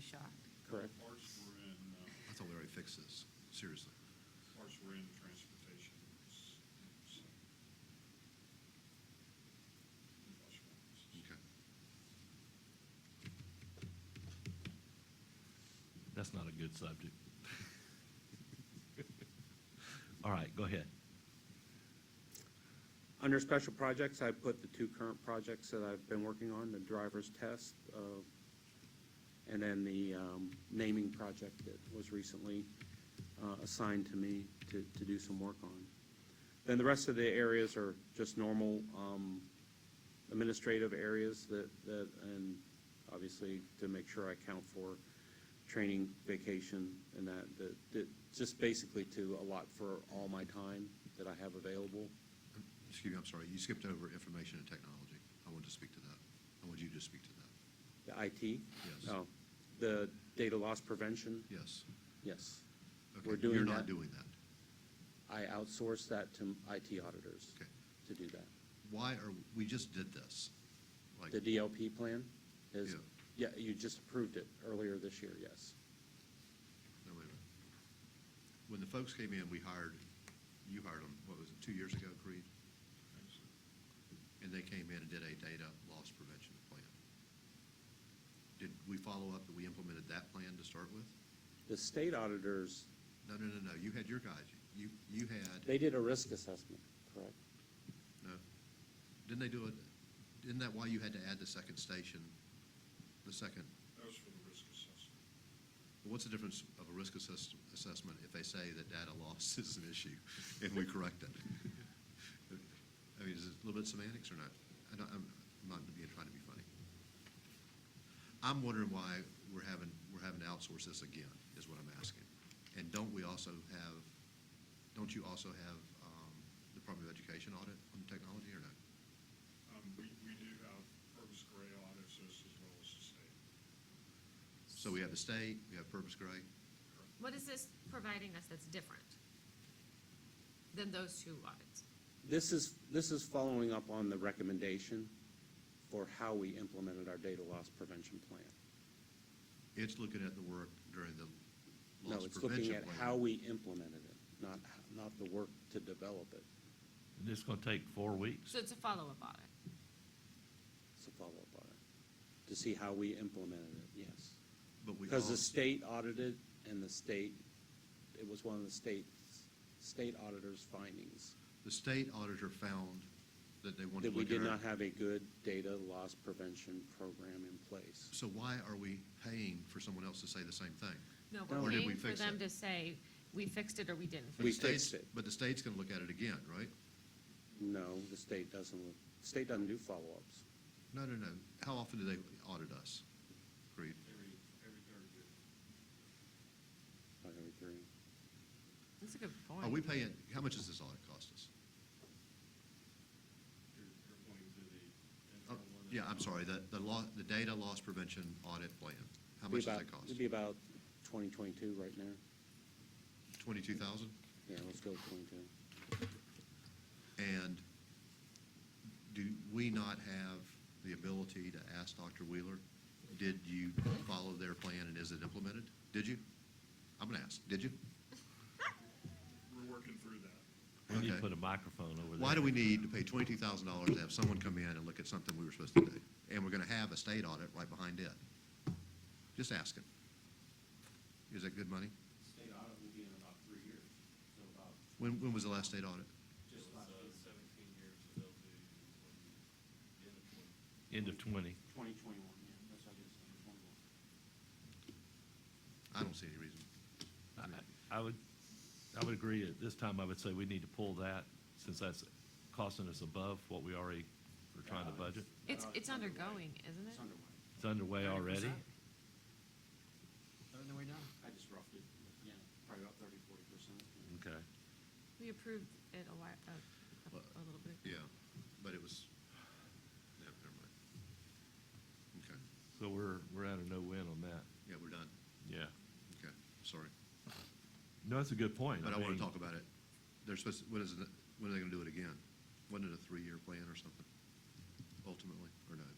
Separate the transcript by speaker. Speaker 1: shocked.
Speaker 2: Correct.
Speaker 3: Parts were in, uh,
Speaker 4: I thought we already fixed this, seriously.
Speaker 3: parts were in transportation. so.
Speaker 4: Okay.
Speaker 5: That's not a good subject. All right, go ahead.
Speaker 2: Under special projects, I put the two current projects that I've been working on, the driver's test, uh, and then the, um, naming project that was recently, uh, assigned to me to, to do some work on. Then the rest of the areas are just normal, um, administrative areas that, that, and obviously to make sure I count for training, vacation, and that, that, that, just basically to allot for all my time that I have available.
Speaker 4: Excuse me, I'm sorry, you skipped over information and technology. I wanted to speak to that. I want you to speak to that.
Speaker 2: The IT?
Speaker 4: Yes.
Speaker 2: Oh, the data loss prevention?
Speaker 4: Yes.
Speaker 2: Yes.
Speaker 4: Okay,
Speaker 2: We're doing
Speaker 4: You're
Speaker 2: that.
Speaker 4: not doing that.
Speaker 2: I outsource that to IT auditors
Speaker 4: Okay.
Speaker 2: to do that.
Speaker 4: Why are, we just did this. Like,
Speaker 2: The DLP plan is, yeah,
Speaker 4: Yeah.
Speaker 2: you just approved it earlier this year, yes.
Speaker 4: no, wait a minute. When the folks came in, we hired, you hired them, what was it, two years ago, Creed? And they came in and did a data loss prevention plan. Did we follow up that we implemented that plan to start with?
Speaker 2: The state auditors,
Speaker 4: No, no, no, no, you had your guys, you, you had.
Speaker 2: they did a risk assessment, correct?
Speaker 4: No. Didn't they do it, isn't that why you had to add the second station, the second?
Speaker 3: That was for the risk assessment.
Speaker 4: What's the difference of a risk assess, assessment if they say that data loss is an issue and we correct it? I mean, is it a little bit semantics or not? I don't, I'm I'm not being, trying to be funny. I'm wondering why we're having, we're having to outsource this again, is what I'm asking. And don't we also have, don't you also have, um, Department of Education audit on technology or not?
Speaker 3: Um, we, we do have purpose gray audits as as well as the state.
Speaker 4: So we have the state, we have Purpose Gray.
Speaker 6: What is this providing us that's different than those two audits?
Speaker 2: This is, this is following up on the recommendation for how we implemented our data loss prevention plan.
Speaker 4: It's looking at the work during the
Speaker 2: No,
Speaker 4: loss
Speaker 2: it's looking
Speaker 4: prevention
Speaker 2: at
Speaker 4: plan.
Speaker 2: how we implemented it, not, not the work to develop it.
Speaker 5: This is gonna take four weeks.
Speaker 6: So it's a follow-up audit.
Speaker 2: It's a follow-up audit, to see how we implemented it, yes.
Speaker 4: But we
Speaker 2: Because the
Speaker 4: also-
Speaker 2: state audited, and the state, it was one of the state's, state auditor's findings,
Speaker 4: The state auditor found that they wanted to
Speaker 2: that we
Speaker 4: look at
Speaker 2: did
Speaker 4: our.
Speaker 2: not have a good data loss prevention program in place.
Speaker 4: So why are we paying for someone else to say the same thing?
Speaker 6: No,
Speaker 2: Or
Speaker 6: we're
Speaker 4: did we
Speaker 6: paying for
Speaker 4: fix
Speaker 6: them
Speaker 4: it?
Speaker 6: to say, we fixed it or we didn't.
Speaker 4: But
Speaker 2: We
Speaker 4: the state's-
Speaker 2: fixed it.
Speaker 4: But the state's gonna look at it again, right?
Speaker 2: No, the state doesn't, the state doesn't do follow-ups.
Speaker 4: No, no, no. How often do they audit us? Creed?
Speaker 3: Every, every third year.
Speaker 2: Not every three.
Speaker 6: That's a good point.
Speaker 4: Are we paying, how much does this audit cost us?
Speaker 3: You're, you're going to the.
Speaker 4: Oh, Yeah, I'm sorry, the, the law, the data loss prevention audit plan. How
Speaker 2: Be
Speaker 4: much does
Speaker 2: about-
Speaker 4: that cost?
Speaker 2: It'd be about twenty twenty-two right now.
Speaker 4: Twenty-two thousand?
Speaker 2: Yeah, let's go with twenty-two.
Speaker 4: And do we not have the ability to ask Dr. Wheeler, did you follow their plan and is it implemented? Did you? I'm going to ask, did you?
Speaker 3: We're working through that.
Speaker 5: We need
Speaker 4: Okay.
Speaker 5: to put a microphone over there.
Speaker 4: Why do we need to pay twenty-two thousand dollars to have someone come in and look at something we were supposed to do? And we're going to have a state audit right behind it. Just asking. Is that good money?
Speaker 7: State audit will be in about three years, so about,
Speaker 4: When, when was the last state audit?
Speaker 7: just about
Speaker 3: Seventeen years, so they'll do end of twenty.
Speaker 5: End of twenty.
Speaker 7: twenty twenty-one, yeah, that's how it is, twenty twenty-one.
Speaker 4: I don't see any reason.
Speaker 5: I- I would, I would agree, at this time, I would say we need to pull that, since that's costing us above what we already were trying to budget.
Speaker 6: It's,
Speaker 7: Uh,
Speaker 6: it's undergoing, isn't
Speaker 7: It's
Speaker 6: it?
Speaker 7: underway.
Speaker 5: It's underway already.
Speaker 7: 30%. Underway now? I just roughed it, yeah, probably about thirty, forty percent.
Speaker 5: Okay.
Speaker 6: We approved it a while, a, a- a little bit.
Speaker 4: Yeah, but it was, yeah, never mind. Okay,
Speaker 5: So we're, we're at a no-win on that.
Speaker 4: yeah, we're done.
Speaker 5: Yeah.
Speaker 4: Okay, sorry.
Speaker 5: No, that's a good point.
Speaker 4: But I want
Speaker 5: mean,
Speaker 4: to talk about it. They're supposed, when is, it- when are they going to do it again? Wasn't it a three-year plan or something, ultimately, or no?